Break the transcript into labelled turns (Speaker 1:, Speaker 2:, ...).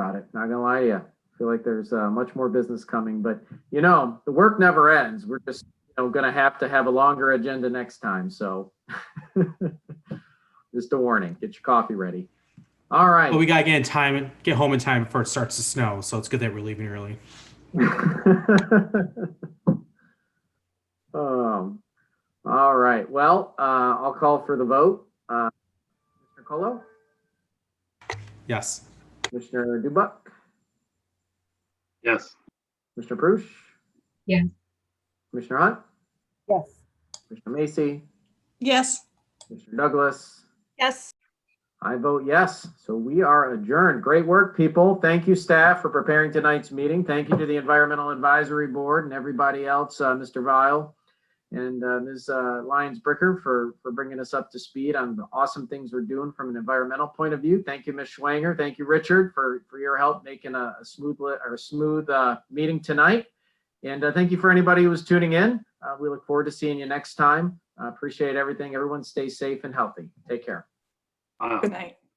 Speaker 1: it. Not gonna lie to you. I feel like there's uh, much more business coming, but you know, the work never ends. We're just you know gonna have to have a longer agenda next time. So just a warning. Get your coffee ready. All right.
Speaker 2: But we gotta get in time, get home in time before it starts to snow. So it's good that we're leaving early.
Speaker 1: um, all right. Well, uh, I'll call for the vote. Uh, Mr. Colo,
Speaker 2: Yes.
Speaker 1: Commissioner Dubuck,
Speaker 3: Yes.
Speaker 1: Mr. Prush.
Speaker 4: Yes.
Speaker 1: Commissioner Hunt,
Speaker 5: Yes.
Speaker 1: Commissioner Macy,
Speaker 6: Yes.
Speaker 1: Mr. Douglas.
Speaker 6: Yes.
Speaker 1: I vote yes. So we are adjourned. Great work, people. Thank you, staff, for preparing tonight's meeting. Thank you to the Environmental Advisory Board and everybody else, uh, Mr. Vile and uh, Ms. uh, Lyons Bricker for, for bringing us up to speed on the awesome things we're doing from an environmental point of view. Thank you, Ms. Schwanger. Thank you, Richard, for, for your help making a a smooth li- or a smooth uh, meeting tonight. And uh, thank you for anybody who was tuning in. Uh, We look forward to seeing you next time. Uh, Appreciate everything. Everyone stay safe and healthy. Take care.
Speaker 3: Uh,
Speaker 6: Good night.